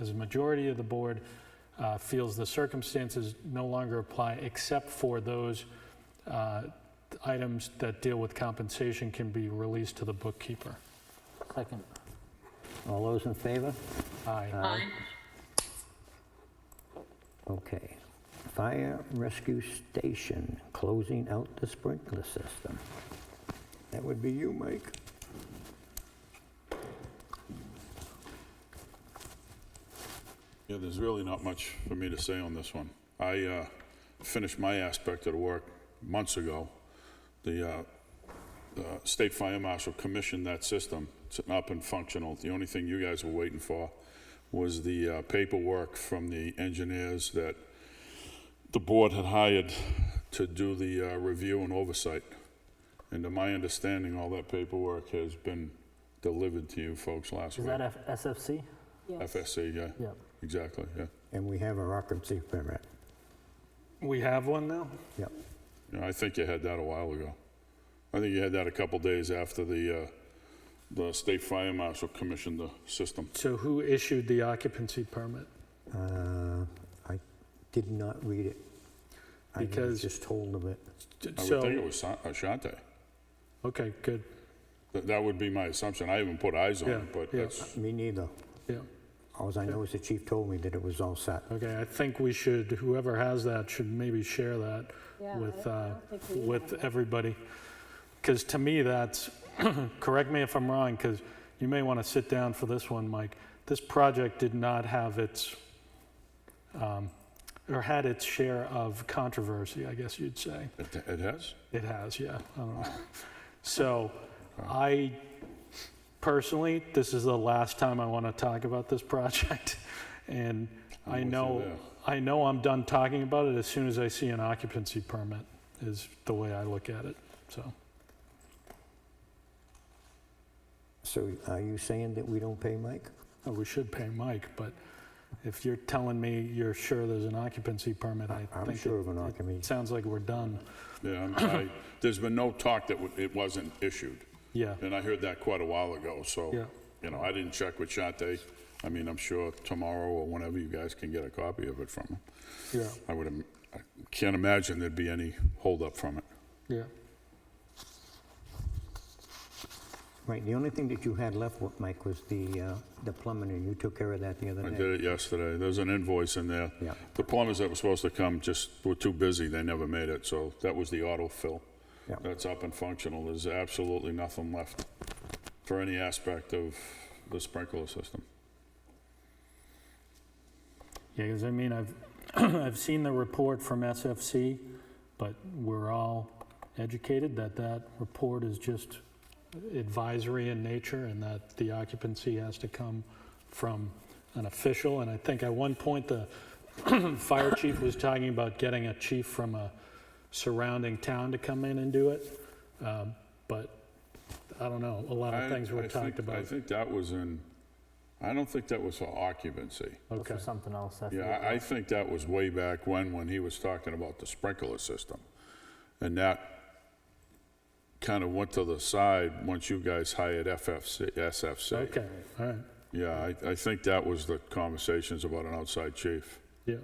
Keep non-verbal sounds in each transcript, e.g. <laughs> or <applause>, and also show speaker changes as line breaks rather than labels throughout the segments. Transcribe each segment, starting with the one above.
as a majority of the board uh, feels the circumstances no longer apply except for those uh, items that deal with compensation can be released to the bookkeeper.
Second. All those in favor?
Aye.
Aye.
Okay. Fire rescue station, closing out the sprinkler system. That would be you, Mike.
Yeah, there's really not much for me to say on this one. I uh, finished my aspect of the work months ago. The uh, uh, State Fire Marshal commissioned that system. It's up and functional. The only thing you guys were waiting for was the uh, paperwork from the engineers that the board had hired to do the uh, review and oversight. And to my understanding, all that paperwork has been delivered to you folks last
Is
week.
that F- SFC?
FSC, yeah.
Yeah.
Exactly, yeah.
And we have our occupancy permit.
We have one now?
Yep.
Yeah, I think you had that a while ago. I think you had that a couple days after the, uh, the state fire marshal commissioned the system.
So who issued the occupancy permit?
Uh, I did not read it. I was
Because-
just told of it.
I would think it
So,
was Sa- Ashante.
okay, good,
That, that would be my assumption. I haven't put eyes on
Yeah,
it, but
yeah.
that's,
Me neither.
yeah.
Alls I know is the chief told me that it was all set.
Okay, I think we should, whoever has that should maybe share that
Yeah, I
with,
don't- I
uh,
don't think we
with
have it.
everybody. Because to me, that's, <clears throat> correct me if I'm wrong, because you may want to sit down for this one, Mike. This project did not have its, um, or had its share of controversy, I guess you'd say.
it it has?
It has, yeah. I don't know. <laughs> So I personally, this is the last time I want to talk about this <laughs> project. And
I'm
I
with you
know,
there.
I know I'm done talking about it as soon as I see an occupancy permit is the way I look at it, so.
So are you saying that we don't pay Mike?
oh, We should pay Mike, but if you're telling me you're sure there's an occupancy permit, I
I'm
think
sure
it
of an occupancy.
sounds like we're done.
Yeah, I'm- I, there's been no talk that w- it wasn't issued.
Yeah,
And I heard that quite a while ago,
Yeah.
so, you know, I didn't check with Ashante. I mean, I'm sure tomorrow or whenever you guys can get a copy of it from him.
yeah,
I would, im- I can't imagine there'd be any holdup from it.
yeah.
Right, the only thing that you had left, with Mike, was the, uh, the plumbing, and you took care of that the other
I
day.
did it yesterday. There's an invoice in there.
Yeah.
The plumbers that were supposed to come just were too busy. They never made it, so that was the auto fill.
Yeah.
That's up and functional. There's absolutely nothing left for any aspect of the sprinkler system.
Yeah, because I mean, I've, <clears throat> I've seen the report from SFC, but we're all educated that that report is just advisory in nature and that the occupancy has to come from an official. And I think at one point, the <clears throat> fire chief was talking about getting a chief from a surrounding town to come in and do it. Um, But I don't know, a lot
I-
of things
I
were
think-
talked about.
I think that was in, I don't think that was for occupancy.
That's
Okay,
for something else. I
Yeah,
forget.
I, I think that was way back when, when he was talking about the sprinkler system. And that kind of went to the side once you guys hired FFC, SFC.
okay, all right,
Yeah, I, I think that was the conversations about an outside chief.
yeah.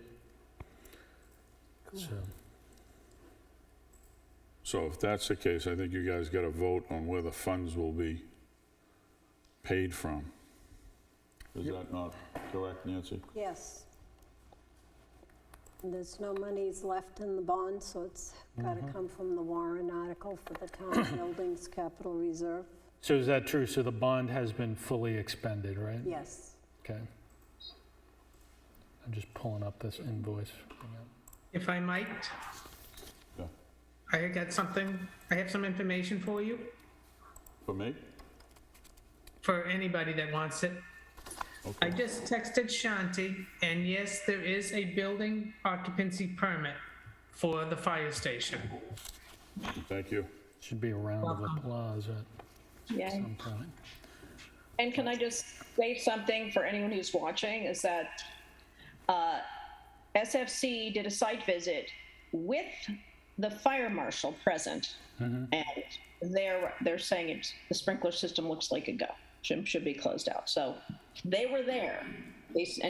So.
So if that's the case, I think you guys got to vote on where the funds will be paid from. Is that not correct, Nancy?
Yes. And There's no monies left in the bond, so it's got to come from the Warren article for the town buildings capital reserve.
So is that true? So the bond has been fully expended, right?
Yes.
Okay. I'm just pulling up this invoice. Hang on.
If I might,
Yeah.
I got something, I have some information for you,
For me?
for anybody that wants it. I just texted Shanti, and yes, there is a building occupancy permit for the fire station.
Thank you.
Should be a round of applause at
Yay.
some point.
And can I just say something for anyone who's watching is that uh, SFC did a site visit with the fire marshal present. And they're, they're saying it's, the sprinkler system looks like a go, should, should be closed out. So they were there. They, s- and